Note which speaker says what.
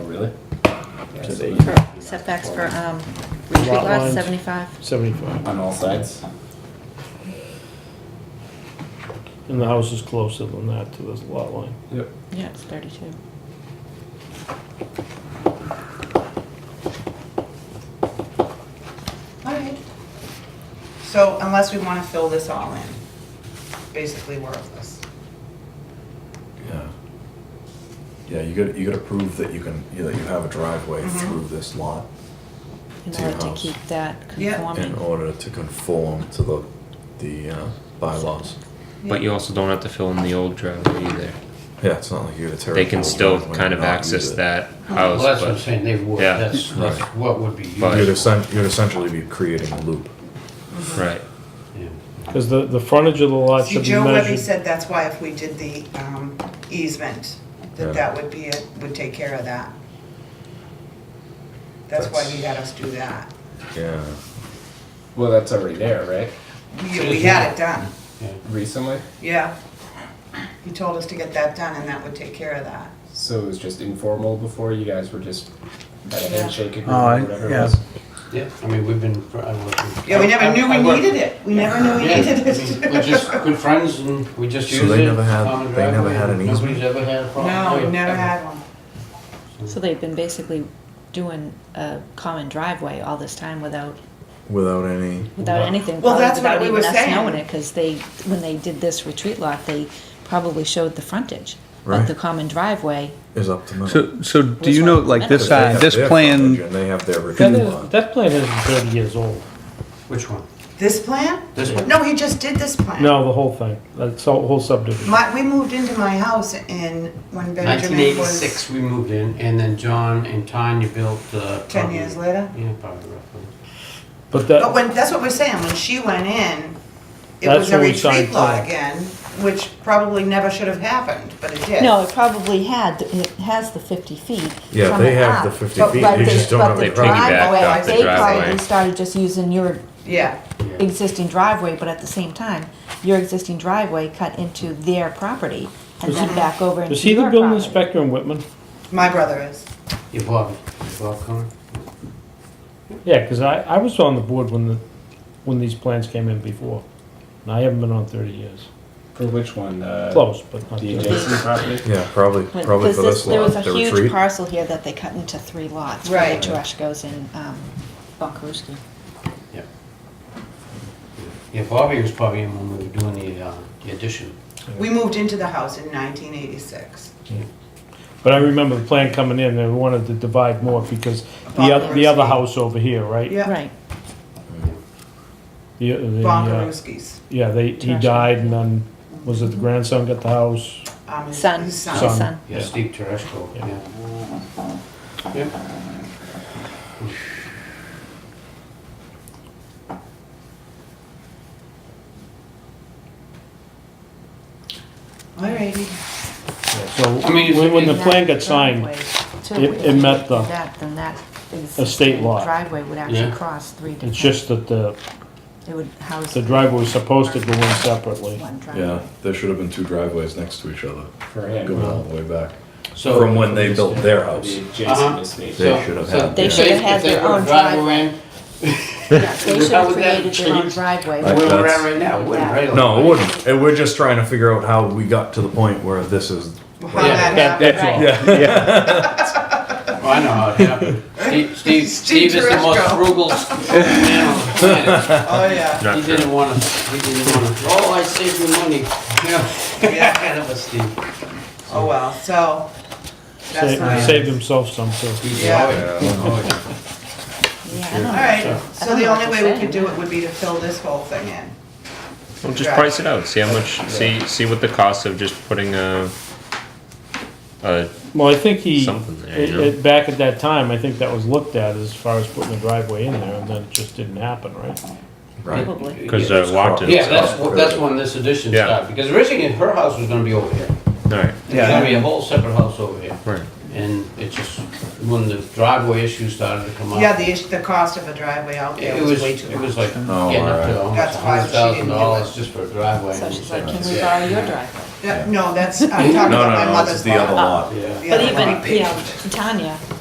Speaker 1: Oh, Really?
Speaker 2: To
Speaker 3: For
Speaker 2: the
Speaker 3: setbacks for, um, retreat
Speaker 2: Lot
Speaker 3: lots,
Speaker 2: lines.
Speaker 3: seventy-five.
Speaker 2: seventy-five,
Speaker 1: On all sides?
Speaker 2: and the house is closer than that to this lot line.
Speaker 1: Yep.
Speaker 3: Yeah, it's thirty-two.
Speaker 4: Alright. So unless we wanna fill this all in, basically worthless.
Speaker 5: Yeah. Yeah, you gotta, you gotta prove that you can, you know, you have a driveway
Speaker 3: Mm-hmm.
Speaker 4: Mhm.
Speaker 5: through this lot
Speaker 3: In
Speaker 5: To your
Speaker 3: order to
Speaker 5: house.
Speaker 3: keep that
Speaker 4: Yeah.
Speaker 5: in
Speaker 3: conforming.
Speaker 5: order to conform to the, the, uh, bylaws.
Speaker 6: But you also don't have to fill in the old driveway either.
Speaker 5: Yeah, it's not like you deteriorate.
Speaker 6: They can still kind of access that house,
Speaker 7: Well, that's what I'm
Speaker 6: but
Speaker 7: saying, they would,
Speaker 6: Yeah.
Speaker 7: that's, that's
Speaker 5: Right.
Speaker 7: what would be
Speaker 6: But-
Speaker 5: You'd
Speaker 7: used.
Speaker 5: essen- you'd essentially be creating a loop.
Speaker 6: right.
Speaker 7: Yeah.
Speaker 2: Because the, the frontage of the lot
Speaker 4: See,
Speaker 2: should be
Speaker 4: Joe Webby
Speaker 2: measured.
Speaker 4: said that's why if we did the um, easement,
Speaker 5: Yeah.
Speaker 4: that that would be, it would take care of that. That's why he had us do that.
Speaker 5: Yeah.
Speaker 1: Well, that's already there, right?
Speaker 4: We we had it done,
Speaker 1: Recently?
Speaker 4: yeah. He told us to get that done and that would take care of that.
Speaker 1: So it was just informal before? You guys were just at a
Speaker 4: Yeah.
Speaker 1: handshake agreement
Speaker 8: Oh, I-
Speaker 1: or whatever it
Speaker 8: yeah.
Speaker 1: was?
Speaker 7: Yeah, I mean, we've been, I worked.
Speaker 4: Yeah, we never knew we needed it. We never knew we
Speaker 7: Yeah,
Speaker 4: needed
Speaker 7: I mean,
Speaker 4: it.
Speaker 7: we're just good friends and we just
Speaker 5: So
Speaker 7: use it.
Speaker 5: they never had-
Speaker 7: common
Speaker 5: they never had
Speaker 7: driveway,
Speaker 5: an easement?
Speaker 7: Nobody's ever had a problem.
Speaker 4: No, we
Speaker 7: yeah,
Speaker 4: never
Speaker 7: ever.
Speaker 4: had one.
Speaker 3: So they've been basically doing a common driveway all this time without,
Speaker 5: Without any,
Speaker 3: without
Speaker 7: Well,
Speaker 3: anything.
Speaker 4: Well,
Speaker 3: probably
Speaker 4: that's what
Speaker 3: without
Speaker 4: we
Speaker 3: even
Speaker 4: were
Speaker 3: us
Speaker 4: saying.
Speaker 3: Knowing it, because they, when they did this retreat lot, they probably showed the frontage
Speaker 5: Right.
Speaker 3: of the common driveway.
Speaker 5: is up to them.
Speaker 8: So, so do
Speaker 3: Which
Speaker 8: you know,
Speaker 3: one?
Speaker 8: like this,
Speaker 5: Because they
Speaker 8: uh,
Speaker 5: have
Speaker 8: this
Speaker 5: their frontage
Speaker 8: plan,
Speaker 5: And they have their retreat
Speaker 2: That is,
Speaker 5: lot.
Speaker 2: that plan isn't thirty years old.
Speaker 7: Which one?
Speaker 4: This plan?
Speaker 7: This one?
Speaker 4: No, he just did this plan.
Speaker 2: No, the whole thing, that's the whole subdivision.
Speaker 4: My, we moved into my house in, when Benjamin was
Speaker 7: 1986 we moved in and then John and Tanya built, uh.
Speaker 4: ten
Speaker 7: probably-
Speaker 4: years later.
Speaker 7: Yeah, probably roughly.
Speaker 2: But
Speaker 4: But
Speaker 2: that,
Speaker 4: when, that's what we're saying, when she went in, it
Speaker 2: That's
Speaker 4: was a
Speaker 2: when we
Speaker 4: retreat
Speaker 2: signed
Speaker 4: law
Speaker 2: plan.
Speaker 4: again, which probably never should have happened, but it did.
Speaker 3: No, it probably had, it has the fifty feet.
Speaker 5: Yeah,
Speaker 3: from
Speaker 5: they
Speaker 3: it
Speaker 5: have the
Speaker 3: up,
Speaker 5: 50
Speaker 3: but-
Speaker 5: feet,
Speaker 3: but
Speaker 5: they
Speaker 3: they-
Speaker 5: just don't
Speaker 3: but
Speaker 5: have
Speaker 3: the
Speaker 5: the driveway.
Speaker 6: They piggybacked off the
Speaker 3: They probably
Speaker 6: driveway.
Speaker 3: started just using your
Speaker 4: Yeah,
Speaker 7: Yeah.
Speaker 3: existing driveway, but at the same time, your existing driveway cut into their property and then back over into
Speaker 2: is he
Speaker 3: your
Speaker 2: the building
Speaker 3: property.
Speaker 2: inspector in Whitman?
Speaker 4: my brother is.
Speaker 7: You Bob, you Bob Connor?
Speaker 2: Yeah, because I, I was on the board when the, when these plans came in before, and I haven't been on thirty years.
Speaker 1: For which one? Uh,
Speaker 2: Close, but not
Speaker 1: The
Speaker 2: 30.
Speaker 1: adjacent property?
Speaker 5: Yeah, probably,
Speaker 3: When-
Speaker 5: probably
Speaker 3: 'cause
Speaker 5: for
Speaker 3: this-
Speaker 5: this lot,
Speaker 3: There
Speaker 5: the
Speaker 3: was a huge
Speaker 5: retreat.
Speaker 3: parcel here that they cut into three lots, where
Speaker 4: Right.
Speaker 3: the trash goes in, um, Bunkerooski.
Speaker 7: Yeah. Yeah, Bobby was probably in when we were doing the, uh, the addition.
Speaker 4: We moved into the house in nineteen eighty-six.
Speaker 2: But I remember the plan coming in, they wanted to divide more because the, oth- the other house over here, right?
Speaker 4: Yeah.
Speaker 3: Right,
Speaker 2: The- the, uh,
Speaker 4: Bonkarooski's.
Speaker 2: Yeah, they, he
Speaker 3: Trash.
Speaker 2: died and then, was it the grandson got the house?
Speaker 4: um, his-
Speaker 3: son,
Speaker 4: his
Speaker 3: his
Speaker 4: son.
Speaker 2: Son.
Speaker 3: son.
Speaker 7: Yeah,
Speaker 2: Yeah.
Speaker 7: Steve Tereshko,
Speaker 2: Yeah.
Speaker 7: yeah. Yeah.
Speaker 4: Alrighty.
Speaker 2: So
Speaker 7: I mean, if-
Speaker 2: when, when the
Speaker 3: That
Speaker 2: plan got signed,
Speaker 3: driveway, too,
Speaker 2: it-
Speaker 3: if
Speaker 2: it met
Speaker 3: they did
Speaker 2: the
Speaker 3: that, Then that is.
Speaker 2: estate lot.
Speaker 3: Driveway would actually
Speaker 7: Yeah.
Speaker 3: cross three different.
Speaker 2: it's just that the,
Speaker 3: It would house.
Speaker 2: the driveway was supposed to go in separately.
Speaker 3: One driveway.
Speaker 5: Yeah, there should have been two driveways next to each other,
Speaker 1: For him.
Speaker 5: going all the way back.
Speaker 7: So.
Speaker 5: From when they built their house.
Speaker 1: The
Speaker 7: Uh-huh.
Speaker 1: adjacent estate.
Speaker 5: They should have
Speaker 7: so-
Speaker 5: had-
Speaker 3: They
Speaker 7: if
Speaker 3: should have
Speaker 7: if
Speaker 3: had
Speaker 7: they
Speaker 3: their
Speaker 7: put a
Speaker 3: own driveway.
Speaker 7: in,
Speaker 3: Yeah, They should
Speaker 7: How
Speaker 3: have
Speaker 7: would that
Speaker 3: created their own
Speaker 7: change?
Speaker 3: driveway.
Speaker 5: Like
Speaker 7: Where we're
Speaker 5: that's-
Speaker 7: at right now, it wouldn't,
Speaker 3: Yeah.
Speaker 7: right?
Speaker 5: No, it wouldn't. And we're just trying to figure out how we got to the point where this is.
Speaker 4: Well, How that
Speaker 2: That-
Speaker 4: happened.
Speaker 2: that's all.
Speaker 7: Oh, I know how it happened. Steve, Steve, Steve is the most
Speaker 4: Tereshko.
Speaker 7: frugal man on the planet.
Speaker 4: Oh, yeah.
Speaker 6: Not
Speaker 7: He
Speaker 6: true.
Speaker 7: didn't wanna, he didn't wanna, oh, I saved you money. You know, that was Steve.
Speaker 4: Oh, well, so. That's
Speaker 2: Saved,
Speaker 4: fine.
Speaker 2: saved himself some, so.
Speaker 7: He's
Speaker 4: Yeah.
Speaker 7: always- always-
Speaker 3: Yeah, I don't know.
Speaker 4: Alright, so the
Speaker 3: know what
Speaker 4: only
Speaker 3: to
Speaker 4: way we
Speaker 3: say.
Speaker 4: could do it would be to fill this whole thing in.
Speaker 6: Well, just price it out. See how much. See see what the cost of just putting a. a
Speaker 2: Well, I think he,
Speaker 6: Something there,
Speaker 2: it-
Speaker 6: you know.
Speaker 2: it- back at that time, I think that was looked at as far as putting the driveway in there, and then it just didn't happen, right?
Speaker 5: Right.
Speaker 3: Probably.
Speaker 6: because
Speaker 7: Yeah.
Speaker 6: uh, Walkden.
Speaker 7: Yeah, that's, wh- that's when this addition
Speaker 6: Yeah.
Speaker 7: started, because originally her house was gonna be over here.
Speaker 6: All right.
Speaker 7: It was gonna be a whole separate house over here.
Speaker 6: Right.
Speaker 7: And it just, when the driveway issue started to come up.
Speaker 4: Yeah, the, issue- the cost of a driveway out
Speaker 7: It
Speaker 4: there
Speaker 7: it
Speaker 4: was
Speaker 7: was,
Speaker 4: way too
Speaker 7: it
Speaker 4: much.
Speaker 7: was like getting
Speaker 5: Oh,
Speaker 7: up
Speaker 5: alright.
Speaker 7: to almost
Speaker 4: That's
Speaker 7: a
Speaker 4: why
Speaker 7: hundred
Speaker 4: she didn't
Speaker 7: thousand
Speaker 4: do it.
Speaker 7: dollars just for a driveway.
Speaker 3: So
Speaker 7: and
Speaker 3: she's
Speaker 7: it's
Speaker 3: like, can we
Speaker 7: yeah.
Speaker 3: borrow your driveway?
Speaker 4: Yeah, No, that's, I'm talking
Speaker 5: No,
Speaker 4: about
Speaker 5: no,
Speaker 4: my
Speaker 5: no, this
Speaker 4: mother's
Speaker 5: is the other
Speaker 4: lot.
Speaker 5: lot.
Speaker 7: Yeah.
Speaker 4: The
Speaker 3: But
Speaker 4: other lot.
Speaker 3: even, you know, Tanya